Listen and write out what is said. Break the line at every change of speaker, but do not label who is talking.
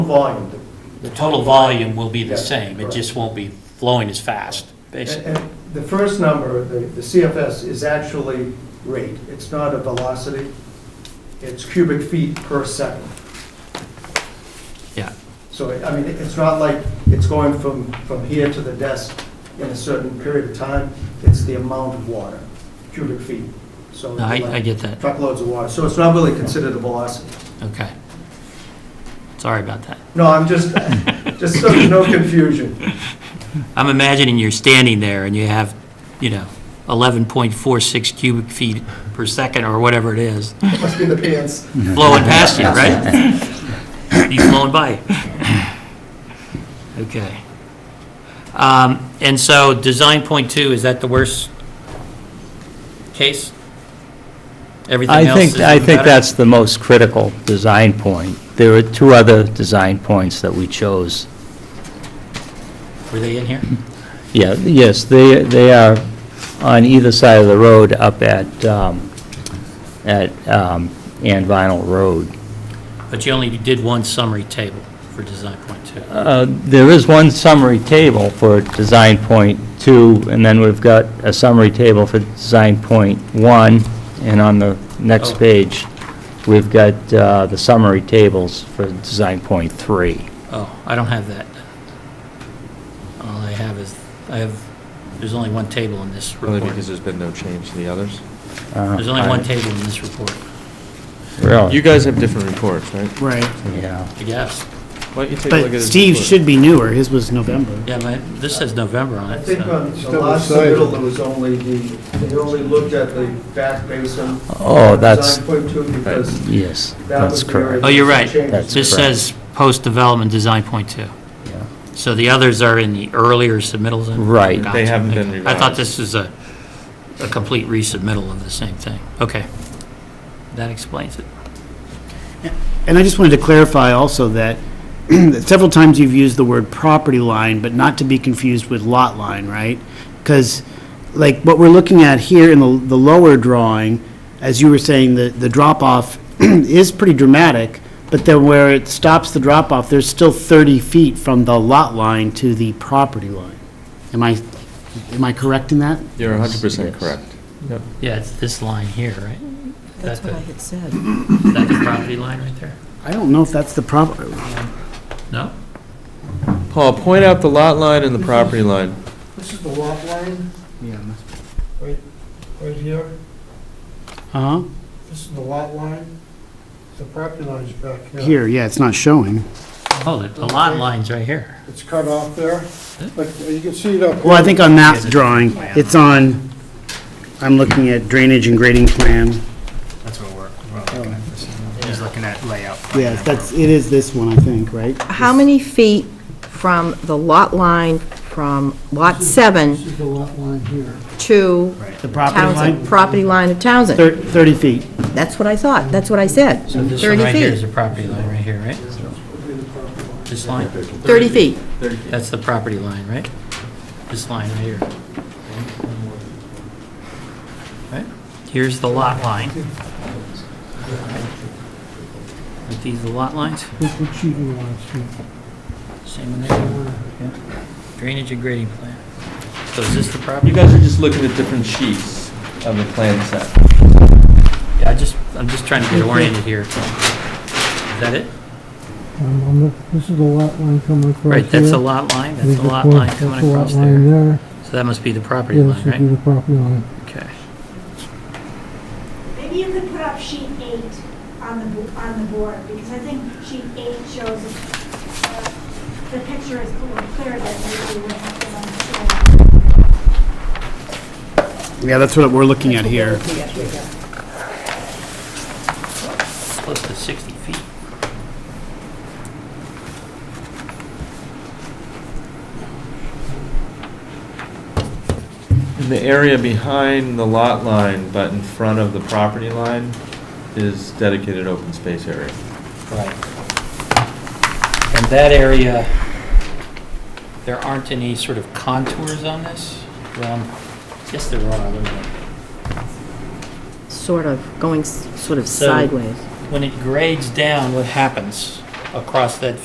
volume.
The total volume will be the
Yeah,
same, it
correct.
just won't be flowing as fast,
And
basically.
and the first number, the the CFS, is actually rate. It's not a velocity. It's cubic feet per second.
Yeah,
So, I mean, it's not like it's going from, from here to the desk in a certain period of time. It's the amount of water, cubic feet. So
no, I, I
like
get that,
truckloads of water. So it's not really considered a velocity.
okay. Sorry about that.
No, I'm just, just so there's no confusion.
I'm imagining you're standing there and you have, you know, 11.46 cubic feet per second or whatever it is
Must be the pants.
flowing past you, right? He's flowing by. Okay. Um, And so design point two, is that the worst case? Everything
I
else
think,
is
I think
better?
that's the most critical design point. There are two other design points that we chose.
Were they in here?
Yeah, yes, they, they are on either side of the road up at, um, at um, Ann Vinyl Road.
But you only did one summary table for design point two.
Uh, There is one summary table for design point two, and then we've got a summary table for design point one, and on the
Oh.
next page, we've got uh, the summary tables for design point three.
Oh, I don't have that. All I have is, I have, there's only one table in this
Really
report.
because there's been no change to the others?
Uh,
There's only
I-
one table in this report,
Really?
You guys have different reports, right?
Right,
Yeah.
I guess.
Why don't you take a look at
but
his
Steve
report?
should be newer, his was November.
Yeah, my, this says November on
I
it,
think
so.
on the last submittal, there was only the, they only looked at the back basin.
Oh, that's-
Design point two, because
Yes,
that
that's
was the area.
correct.
Oh, you're right.
Changes.
This says post-development design point two.
Yeah.
So the others are in the earlier submittals? then?
Right.
Gotcha.
They haven't been
I thought
revised.
this was a, a complete resubmittal of the same thing. Okay. That explains it.
And I just wanted to clarify also that several times you've used the word property line, but not to be confused with lot line, right? Because, like, what we're looking at here in the, the lower drawing, as you were saying, the, the drop-off is pretty dramatic, but then where it stops the drop-off, there's still 30 feet from the lot line to the property line. Am I, am I correct in that?
You're 100%
Yes.
correct.
Yeah, it's this line here, right?
That's what I had said.
Is that the property line right there?
I don't know if that's the proper,
No?
Paul, point out the lot line and the property line.
This is the lot line,
yeah,
right here.
uh-huh.
This is the lot line. The property line is back here.
Here, yeah, it's not showing.
Oh, the- the lot line's right here.
It's cut off there. Like, you can see it up here.
Well, I think on that drawing, it's on, I'm looking at drainage and grading plan.
That's what we're, we're looking at this. He's looking at layout.
Yes, that's, it is this one, I think, right?
How many feet from the lot line from Lot 7
This is the lot line here.
to
The property
Townsend,
line?
property line of Townsend?
Thir- 30 feet.
That's what I thought, that's what I said.
So this one
30
right here is
feet,
the property line right here, right? This line?
30 feet.
That's the property line, right? This line right here. Right? Here's the lot line. Aren't these the lot lines?
This is cheating lines here.
Same in there. Drainage and grading plan. So is this the property?
You guys are just looking at different sheets of the plan set.
Yeah, I just, I'm just trying to get oriented here. Is that it?
Um, I'm look- This is the lot line coming across here.
Right, that's a lot line, that's a lot line coming across
That's the lot line
there.
there.
So that must be the property
Yeah,
line,
this would be
right?
the property line.
Okay.
Maybe you could put up sheet eight on the, bo- on the board, because I think sheet eight shows, uh, the picture is clearer than maybe we have it on the screen.
Yeah, that's what we're looking at here.
Close to 60 feet.
And the area behind the lot line, but in front of the property line, is dedicated open space area.
Right. And that area, there aren't any sort of contours on this? Well, yes, there are. wait a minute.
Sort of, going s- sort of
So-
sideways.
When it grades down, what happens across that